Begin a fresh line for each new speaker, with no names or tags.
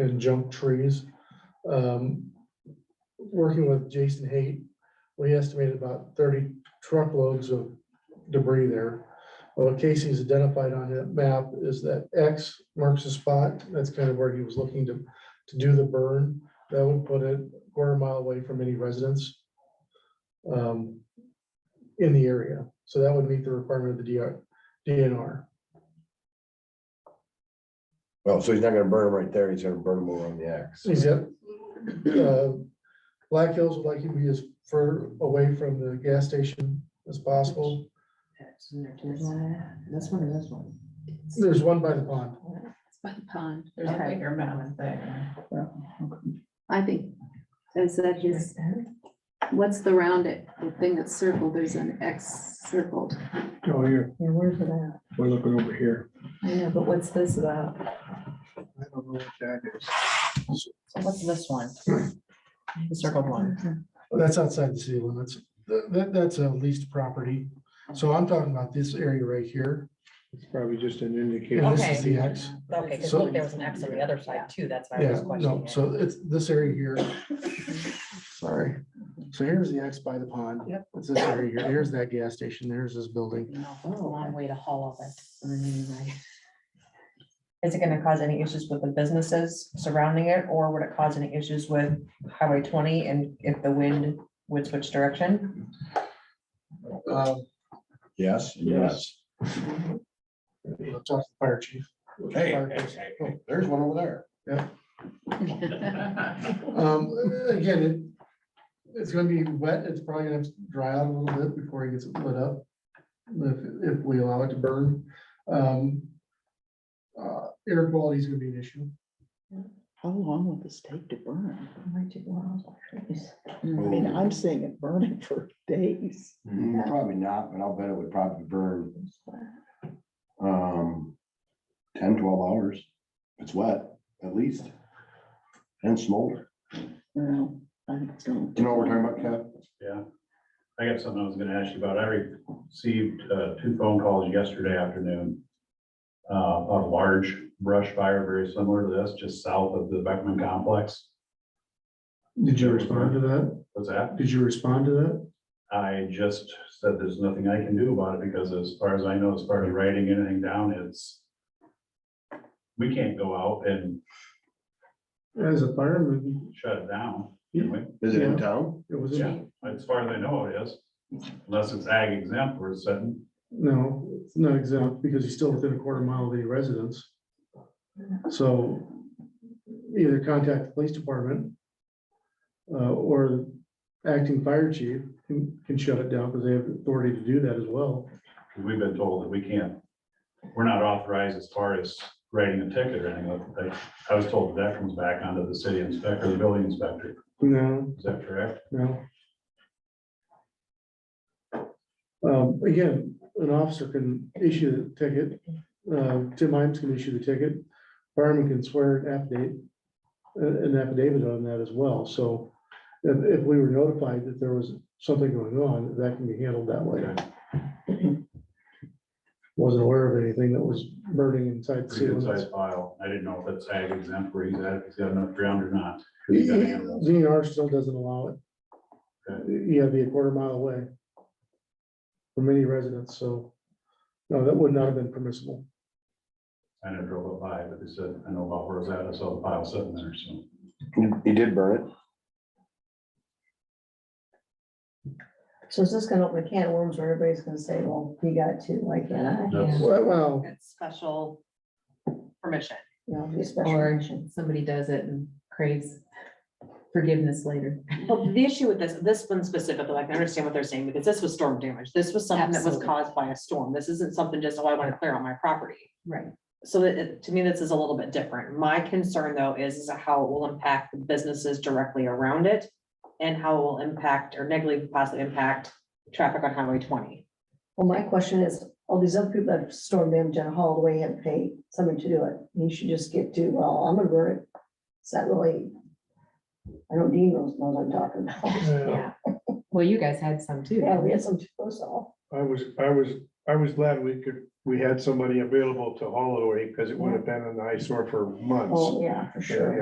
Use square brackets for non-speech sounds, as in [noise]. and junk trees. Um, Working with Jason Haight, we estimated about thirty truckloads of debris there. Well, Casey's identified on that map is that X marks the spot. That's kind of where he was looking to, to do the burn. That would put it a quarter mile away from any residents um, in the area. So that would meet the requirement of the DR DNR.
Well, so he's not gonna burn them right there, he's gonna burn them over on the X.
Is it, uh, Black Hills would like you to be as far away from the gas station as possible.
That's one or this one?
There's one by the pond.
It's by the pond.
There's a
Okay.
bigger mound there. [laughs]
I think, is that his, what's the round it, the thing that's circled, there's an X circled.
Oh, here,
Yeah, where's it at?
we're looking over here.
I know, but what's this about?
I don't know what that is.
So what's this
[clears throat]
one? The circled one.
That's outside the city limits. Th- that- that's a leased property. So I'm talking about this area right here.
It's probably just an indicator.
And this
Okay.
is the X.
Okay, because
So-
look, there was an X on the other side too, that's why I
Yeah,
was
no,
questioning. it.
so it's this area here. Sorry. So here's the X by the pond. Yep. It's this area here. Here's that gas station. There's this building.
You know, it's a Long way to haul of it. I mean, like- Is it gonna cause any issues with the businesses surrounding it, or would it cause any issues with Highway twenty and if the wind would switch direction?
Um,
Yes, yes.
I'll Talk to the fire chief.
there's one over there.
Um, again, it, it's gonna be wet, it's probably gonna have to dry out a little bit before it gets lit up. If, if we allow it to burn, um. Uh, air quality is gonna be an issue.
How long will this take to burn? I mean, I'm seeing it burning for days.
Mm, Probably not, but I'll bet it would probably burn. Um, 10, 12 hours, it's wet, at least. And smolder,
No, I think it's gonna.
you know what we're talking about, Kev?
Yeah, I got something I was gonna ask you about. I received uh, two phone calls yesterday afternoon uh, of a large brush fire very similar to this, just south of the Beckman complex.
Did you respond to that?
What's that?
Did you respond to that?
I just said there's nothing I can do about it because as far as I know, as far as writing anything down, it's we can't go out and
As a fireman,
shut it down. can we?
Is it
Yeah.
in town?
it was,
Yeah, as far as I know it is, unless it's ag exempt or it's setting.
no, it's not exempt because he's still within a quarter mile of the residence. So either contact the police department uh, or acting fire chief can, can shut it down because they have authority to do that as well.
Because we've been told that we can't, we're not authorized as far as writing a ticket or anything. Like, I was told that comes back onto the city inspector, the building inspector.
No,
Is that correct?
no. Um, Again, an officer can issue the ticket. uh, Tim Imes can issue the ticket. Fireman can swear an affidavit, uh, an affidavit on that as well. So if, if we were notified that there was something going on, that can be handled that way. Wasn't aware of anything that was burning inside the
Pretty
city
good
limits.
size file. I didn't know if that's ag exempt where he's at, if he's got enough ground or not. 'Cause he's got animals.
DNR still doesn't allow it. You gotta be a quarter mile away. From any residents, so, no, that would not have been permissible.
I never drove up by, but they said, I know about where it's at. I saw the pile sitting there, so.
He did burn it.
So is this gonna open a can of worms where everybody's gonna say, well, we got two, why can't I?
That's-
Well,
It's special permission.
You know, be special
Or
mention.
somebody does it and craves forgiveness later.
Well, the issue with this, this one specifically, like, I understand what they're saying, because this was storm damage. This was something that was
Absolutely.
caused by a storm. This isn't something just, oh, I want to clear out my property.
Right.
So it- it, to me, this is a little bit different. My concern, though, is, is how it will impact the businesses directly around it and how it will impact or negatively possibly impact traffic on Highway twenty.
Well, my question is, all these other people that have stormed damage and hauled away and paid someone to do it, you should just get to, well, I'm gonna burn it. It's not really. I don't deem those, know what I'm talking about.
I
Yeah. Well, you guys had some too.
Yeah, we had some to us all.
I was, I was, I was glad we could, we had somebody available to haul away because it would have been an eyesore for months.
Oh, yeah, for sure.